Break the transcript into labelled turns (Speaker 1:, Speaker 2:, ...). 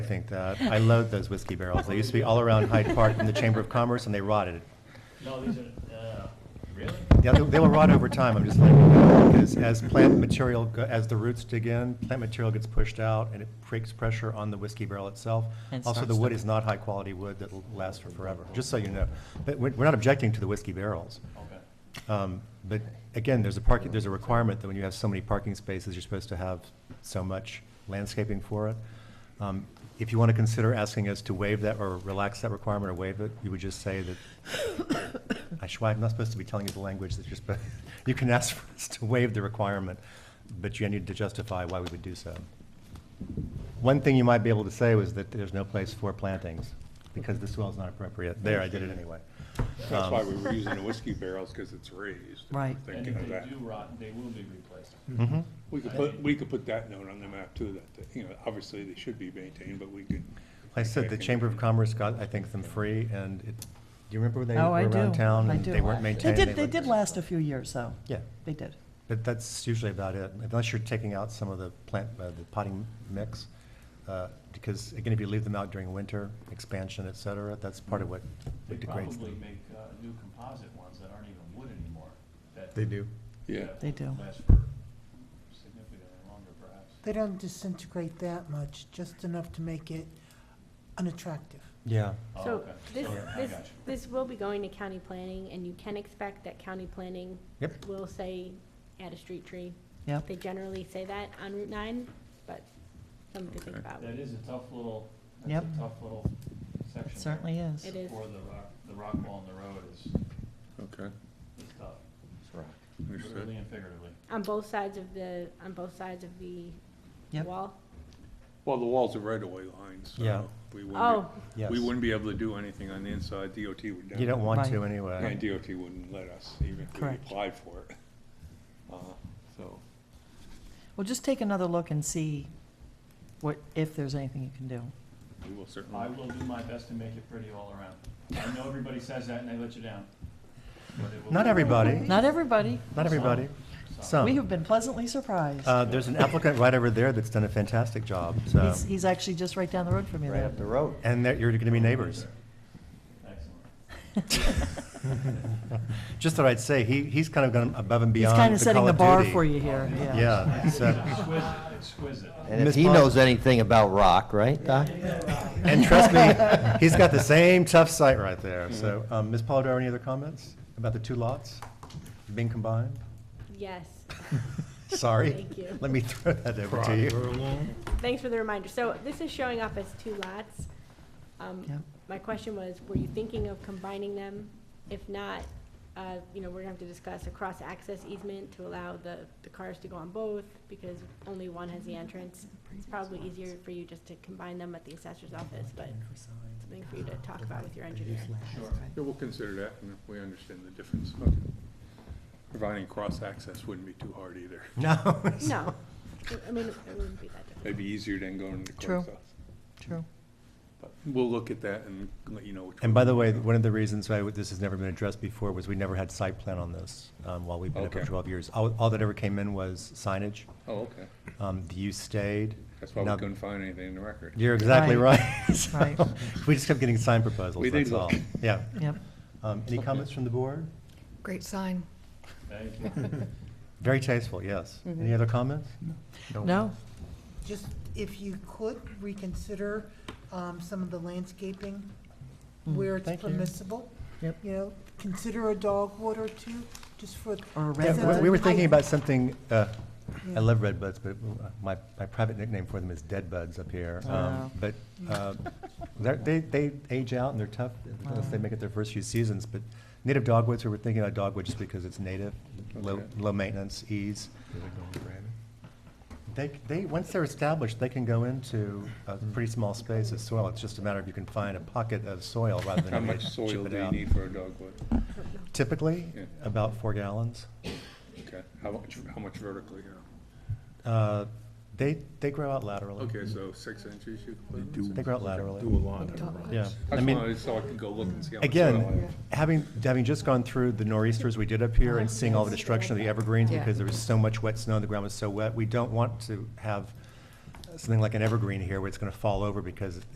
Speaker 1: think that. I loathe those whiskey barrels. They used to be all around Hyde Park in the Chamber of Commerce, and they rotted.
Speaker 2: No, these are, uh, really?
Speaker 1: Yeah, they they will rot over time, I'm just letting you know, because as plant material, go- as the roots dig in, plant material gets pushed out, and it creates pressure on the whiskey barrel itself.
Speaker 3: And
Speaker 1: Also, the
Speaker 3: starts
Speaker 1: wood
Speaker 3: to-
Speaker 1: is not high-quality wood that'll last for forever, just so you know. But we're we're not objecting to the whiskey barrels.
Speaker 2: Okay.
Speaker 1: Um, But again, there's a parking, there's a requirement that when you have so many parking spaces, you're supposed to have so much landscaping for it. Um, If you want to consider asking us to waive that or relax that requirement or waive it, you would just say that, I swear, I'm not supposed to be telling you the language that you're supposed, you can ask for us to waive the requirement, but you need to justify why we would do so. One thing you might be able to say was that there's no place for plantings, because the soil's not appropriate. There, I did it anyway.
Speaker 4: That's
Speaker 1: Um,
Speaker 4: why we were using the whiskey barrels, because it's raised. We're
Speaker 3: Right.
Speaker 2: And
Speaker 4: Thinking
Speaker 2: if
Speaker 4: of that.
Speaker 2: they do rot, they will be replaced.
Speaker 1: Mhm.
Speaker 4: We could put, we could put that note on the map too, that, you know, obviously they should be maintained, but we could.
Speaker 1: I said the Chamber of Commerce got, I think, them free, and it, do you remember when they
Speaker 3: Oh,
Speaker 1: were
Speaker 3: I
Speaker 1: around
Speaker 3: do.
Speaker 1: town?
Speaker 3: I
Speaker 1: and
Speaker 3: do.
Speaker 1: They weren't
Speaker 3: They
Speaker 1: maintained.
Speaker 3: did, they
Speaker 1: looked-
Speaker 3: did last a few years, though.
Speaker 1: Yeah,
Speaker 3: They did.
Speaker 1: but that's usually about it, unless you're taking out some of the plant, uh, the potting mix. uh, Because, again, if you leave them out during winter, expansion, et cetera, that's part of what
Speaker 2: They
Speaker 1: what degrades
Speaker 2: probably
Speaker 1: them.
Speaker 2: make, uh, new composite ones that aren't even wood anymore. that-
Speaker 1: They do.
Speaker 4: Yeah,
Speaker 2: that
Speaker 3: They do.
Speaker 2: Last for significantly longer perhaps.
Speaker 5: They don't disintegrate that much, just enough to make it unattractive.
Speaker 1: Yeah.
Speaker 2: Oh,
Speaker 6: So
Speaker 2: okay.
Speaker 6: this,
Speaker 2: Okay, I
Speaker 6: this,
Speaker 2: got you.
Speaker 6: this will be going to county planning, and you can expect that county planning
Speaker 1: Yep.
Speaker 6: will say, add a street tree.
Speaker 3: Yep.
Speaker 6: They generally say that on Route 9, but something to think about.
Speaker 2: That is a tough little,
Speaker 3: Yep.
Speaker 2: that's a tough little section.
Speaker 3: It certainly
Speaker 2: there.
Speaker 3: is.
Speaker 6: It is.
Speaker 2: For the rock, the rock wall in the road is,
Speaker 4: okay,
Speaker 2: is tough, literally
Speaker 4: understood.
Speaker 2: and figuratively.
Speaker 6: On both sides of the, on both sides of the
Speaker 3: Yep.
Speaker 6: wall.
Speaker 4: Well, the wall's a right-of-way line,
Speaker 1: Yeah.
Speaker 4: so we wouldn't,
Speaker 6: Oh,
Speaker 4: be-
Speaker 1: Yes.
Speaker 4: we wouldn't be able to do anything on the inside, DOT would never.
Speaker 1: You don't want to
Speaker 3: Right.
Speaker 4: And
Speaker 1: anyway.
Speaker 4: DOT wouldn't let us, even if we
Speaker 3: Correct.
Speaker 4: applied for it. Uh, So,
Speaker 3: Well, just take another look and see what, if there's anything you can do.
Speaker 4: we will certainly.
Speaker 2: I will do my best to make it pretty all around. I know everybody says that and they let you down. but it will
Speaker 1: Not
Speaker 2: be-
Speaker 1: everybody,
Speaker 3: Not everybody.
Speaker 1: not everybody.
Speaker 2: So-
Speaker 1: Some.
Speaker 3: We have been pleasantly surprised.
Speaker 1: Uh, There's an applicant right over there that's done a fantastic job, so.
Speaker 3: He's, he's actually just right down the road from you
Speaker 7: Right
Speaker 3: there.
Speaker 7: up the road.
Speaker 1: And that you're going to be neighbors.
Speaker 2: Excellent.
Speaker 1: Just thought I'd say, he, he's kind of gone above and
Speaker 3: He's
Speaker 1: beyond the
Speaker 3: kind of setting
Speaker 1: Call
Speaker 3: the
Speaker 1: of
Speaker 3: bar
Speaker 1: Duty.
Speaker 3: for you here, yeah.
Speaker 1: Yeah, so,
Speaker 2: Exquisite, exquisite.
Speaker 7: And if
Speaker 1: Ms.
Speaker 7: he
Speaker 1: Pons-
Speaker 7: knows anything about rock, right, Doc?
Speaker 1: and trust me, he's got the same tough site right there. So, um, Ms. Polidoro, any other comments about the two lots being combined?
Speaker 6: yes.
Speaker 1: Sorry.
Speaker 6: Thank you.
Speaker 1: Let me throw that over to you.
Speaker 6: Thanks for the reminder. So this is showing up as two lots. Um,
Speaker 3: Yep.
Speaker 6: My question was, were you thinking of combining them? If not, uh, you know, we're gonna have to discuss a cross-access easement to allow the, the cars to go on both, because only one has the entrance. It's probably easier for you just to combine them at the assessor's office, but something for you to talk about with your engineer.
Speaker 4: Yeah, we'll consider that, and if we understand the difference. Okay. Providing cross-access wouldn't be too hard either.
Speaker 1: No.
Speaker 6: No, I- I mean, it wouldn't be that difficult.
Speaker 4: It'd be easier than going to
Speaker 3: True.
Speaker 4: close us.
Speaker 3: True.
Speaker 4: But We'll look at that and let you know which.
Speaker 1: And
Speaker 4: one.
Speaker 1: by the way, one of the reasons why this has never been addressed before was we never had site plan on this, um, while we've been up for
Speaker 4: Okay.
Speaker 1: twelve years. All, all that ever came in was signage.
Speaker 4: Oh, okay.
Speaker 1: Um, the use stayed.
Speaker 4: That's why we
Speaker 1: Now-
Speaker 4: couldn't find anything in the record.
Speaker 1: You're exactly
Speaker 3: Right.
Speaker 1: right. So,
Speaker 3: Right.
Speaker 1: We just kept getting sign proposals,
Speaker 4: We did
Speaker 1: that's all.
Speaker 4: look.
Speaker 1: Yeah.
Speaker 3: Yep.
Speaker 1: Um, Any comments from the board?
Speaker 8: Great sign.
Speaker 2: Thank you.
Speaker 1: Very tasteful, yes. Any other comments?
Speaker 3: Mm-hmm. No,
Speaker 5: Just if you could reconsider um, some of the landscaping where it's
Speaker 1: Mm, thank you.
Speaker 5: permissible.
Speaker 3: Yep.
Speaker 5: You know, consider a dogwood or two, just for.
Speaker 3: or
Speaker 1: Yeah,
Speaker 3: a red
Speaker 1: we-
Speaker 5: Residents.
Speaker 1: We were
Speaker 5: I-
Speaker 1: thinking about something, uh, I
Speaker 5: Yeah.
Speaker 1: love red buds, but uh, my, my private nickname for them is dead buds up here. Um,
Speaker 3: Oh.
Speaker 1: But
Speaker 5: Mm.
Speaker 1: uh, they're- they, they age out and they're tough unless they make it their first few seasons. But native dogwoods, we were thinking about dogwood just because it's native, low,
Speaker 4: Okay.
Speaker 1: low maintenance, ease. They, they, once they're established, they can go into a
Speaker 4: Mm-hmm.
Speaker 1: pretty small space of soil. It's just a matter of you can find a pocket of soil rather than.
Speaker 4: How
Speaker 1: you
Speaker 4: much
Speaker 1: chip
Speaker 4: soil
Speaker 1: it
Speaker 4: do you
Speaker 1: out.
Speaker 4: need for a dogwood?
Speaker 1: Typically,
Speaker 4: Yeah.
Speaker 1: about four gallons.
Speaker 4: Okay, how much, how much vertically, you know?
Speaker 1: Uh, They, they grow out laterally.
Speaker 4: Okay, so six inches you put?
Speaker 1: They grow out laterally. Yeah.
Speaker 4: I
Speaker 1: I
Speaker 4: just
Speaker 1: mean,
Speaker 4: wanted, so I could go look and see how much soil I
Speaker 1: again,
Speaker 4: have.
Speaker 1: having, having just gone through the nor'easters we did up here and seeing all the destruction of the evergreens
Speaker 8: Yeah.
Speaker 1: because there was so much wet snow, and the ground was so wet, we don't want to have something like an evergreen here where it's going to fall over because